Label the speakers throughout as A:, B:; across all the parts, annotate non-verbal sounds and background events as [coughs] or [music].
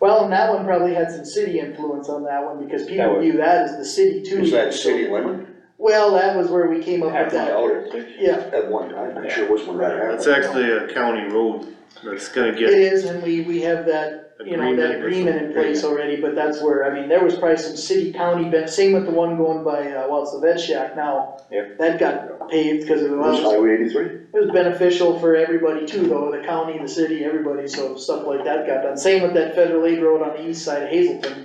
A: Well, and that one probably had some city influence on that one, because
B: That
A: people
B: would-
A: view that as the city too.
C: Is that city limit?
A: Well, that was where we came up with
B: Half a
A: that,
B: dollar.
A: yeah,
C: At one time, I'm sure it was when that happened.
D: It's actually a county road that's gonna
A: it
D: get
A: is, and we, we have that, you know,
D: Agreement or
A: that agreement in
D: something.
A: place already, but that's where, I mean, there was probably some city county, but same with the one going by, uh, well, it's the vet shack now.
B: Yeah.
A: That got paved, cause it
C: Was
A: was,
C: Highway eighty-three?
A: it was beneficial for everybody too, though, the county, the city, everybody, so stuff like that got done, same with that federal aid road on the east side of Hazelton.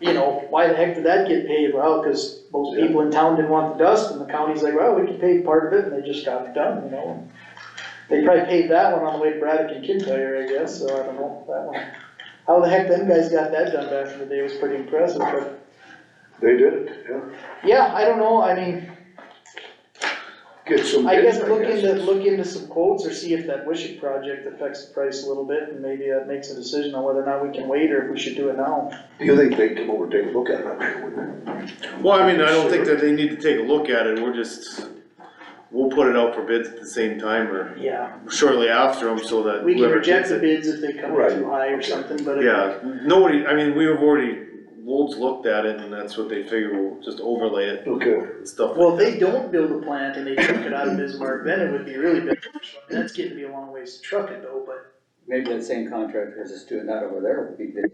A: You know, why the heck did that get paved? Well, cause most people in town didn't want the dust, and the county's like, well, we can pave part of it, and they just got it done, you know? They probably paved that one on the way to Braddock and Kintyre, I guess, so I don't know, that one. How the heck them guys got that done back in the day was pretty impressive, but,
C: They did it, yeah.
A: yeah, I don't know, I mean,
C: Get some
A: I
C: bids,
A: guess look into, look into some quotes or see if that Wishick project affects the price a little bit, and maybe that makes a decision on whether or not we can wait or if we should do it now.
C: Do you think they'd come over and take a look at it? I'm sure wouldn't they?
D: Well, I mean, I don't think that they need to take a look at it, we're just, we'll put it out for bids at the same time or
A: Yeah.
D: shortly after them so that
A: We can
D: whoever
A: reject
D: gets
A: the
D: it.
A: bids if they come in
C: Right,
A: too high or
C: okay.
A: something, but. if-
D: Yeah, nobody, I mean, we've already, Wolves looked at it and that's what they figure, we'll just overlay it
C: Okay,
D: and stuff.
A: Well, if they don't build a plant and they truck it out of Bismarck, then it would be really big. That's getting to be a long ways to truck it though, but.
E: Maybe that same contractor that's doing that over there would be the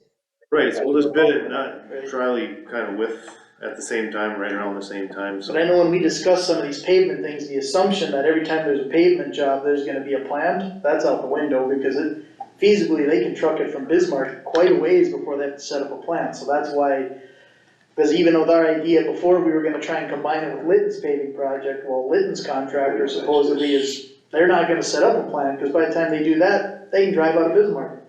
D: Right, so we'll just bid it, not
A: Right.
D: tryly kind of with, at the same time, right around the same time, so.
A: But I know when we discuss some of these pavement things, the assumption that every time there's a pavement job, there's gonna be a plant, that's out the window because it feasibly, they can truck it from Bismarck quite a ways before they have to set up a plant, so that's why. Cause even with our idea before, we were gonna try and combine it with Litten's paving project, well, Litten's contractor supposedly is, they're not gonna set up a plant, cause by the time they do that, they can drive out of Bismarck.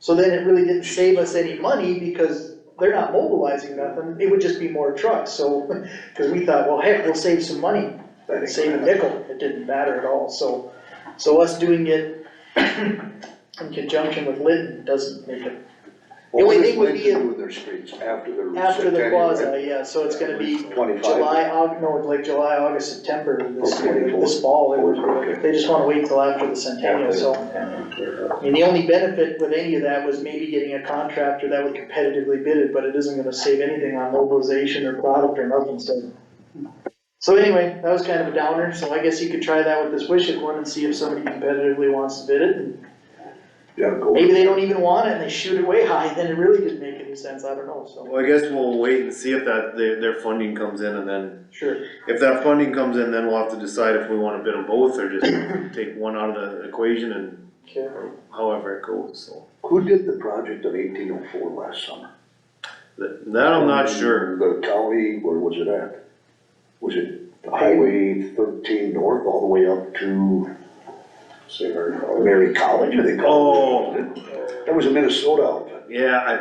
A: So then it really didn't save us any money because they're not mobilizing nothing, it would just be more trucks, so. [laughs] Cause we thought, well, heck, we'll save some money,
C: that ain't
A: save a
C: bad.
A: nickel, it didn't matter at all, so, so us doing it [clears throat] in conjunction with Lytton doesn't make it,
C: Well,
A: only
C: what
A: thing
C: is
A: would
C: Lincoln
A: be a-
C: do with their streets after their.
A: after the
C: centennial, right?
A: quasi, yeah, so it's gonna be
C: Twenty-five.
A: July, Aug, no, like July, August, September, this,
C: Okay,
A: this fall, they
C: okay.
A: were, they just wanna wait till after the centennial, so. I mean, the only benefit with any of that was maybe getting a contractor that would competitively bid it, but it isn't gonna save anything on mobilization or product or nothing, so. So anyway, that was kind of a downer, so I guess you could try that with this wish it one and see if somebody competitively wants to bid it, and
C: Yeah, go.
A: maybe they don't even want it and they shoot it way high, [laughs] then it really didn't make any sense, I don't know, so,
D: Well, I guess we'll wait and see if that, their, their funding comes in and then,
A: sure.
D: if that funding comes in, then we'll have to decide if we wanna bid them both or
C: [coughs]
D: just take one out of the equation and
A: Okay.
D: however it goes, so.
C: Who did the project on eighteen oh four last summer?
D: That, that I'm
C: Mm-hmm.
D: not sure.
C: The county, where was it at? Was it Highway thirteen north all the way up to Mary College, or they
F: Oh.
C: call it? That was a Minnesota outfit.
D: Yeah, I,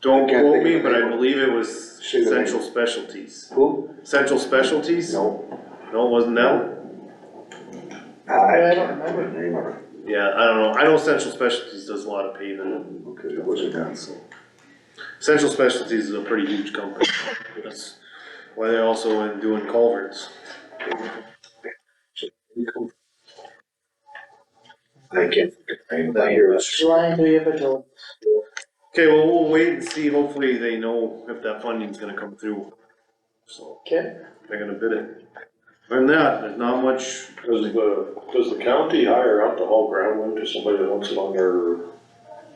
D: don't
C: I can't
D: quote
C: think of
D: me,
C: the
D: but I
C: name.
D: believe it was
C: Say the name.
D: Central Specialties.
C: Who?
D: Central Specialties?
C: No.
D: No, it wasn't that one?
A: I don't
C: I can't remember the name of it.
D: Yeah, I don't know. I know Central Specialties does a lot of paving
C: Okay, it
D: and stuff
C: wasn't
D: like that,
C: that.
D: so. Central Specialties is a pretty huge company. That's why they're also in doing culverts.
C: I can't. I hear it.
A: July, do you have a July?
D: Okay, well, we'll wait and see, hopefully they know if that funding's gonna come through, so
A: Okay,
D: they're gonna bid it. Other than that, there's not much,
F: Does the, does the county hire out to haul groundwood to somebody that wants it on their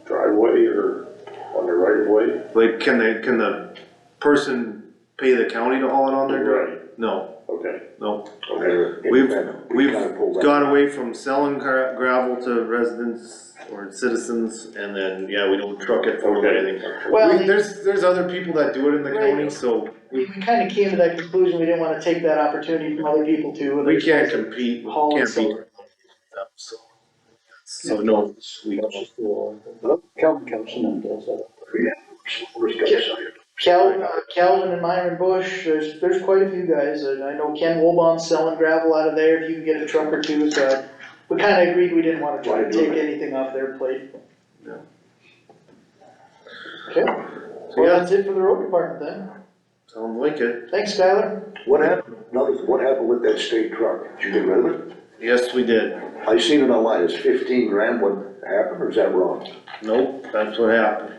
F: driveway or on their right of way?
D: like, can they, can the person pay the county to haul it on
C: Mm-hmm.
D: their ground? No,
F: Okay,
D: no,
F: okay.
D: we've,
C: Independent. We
D: we've
C: kinda pulled that.
D: got away from selling gra- gravel to residents or citizens, and then, yeah, we don't truck it or
F: Okay.
D: anything.
A: well.
D: We- There's, there's other people that do it in the
A: Right.
D: county, so
A: we, we kinda came to that conclusion, we didn't wanna take that opportunity from other people too.
D: we can't compete, we
A: Haul and
D: can't
A: sell.
D: beat them, so. So, no, we don't.
E: Calvin Kelson and does that.
C: Those guys out here.
A: Calvin, uh, Calvin and Myron Bush, there's, there's quite a few guys, and I know Ken Wobon's selling gravel out of there, if you can get a truck or two, so. We kinda agreed we didn't wanna try to take anything off their plate.
D: No.
A: Okay,
D: So,
A: well,
D: yeah,
A: that's it for the road department
D: sounds like it.
A: then, thanks Skylar.
C: What happened, another, thing, what happened with that state truck? Did you get rid of it?
D: Yes, we did.
C: I seen it online, it's fifteen grand, what happened, or is that wrong?
D: Nope, that's what happened.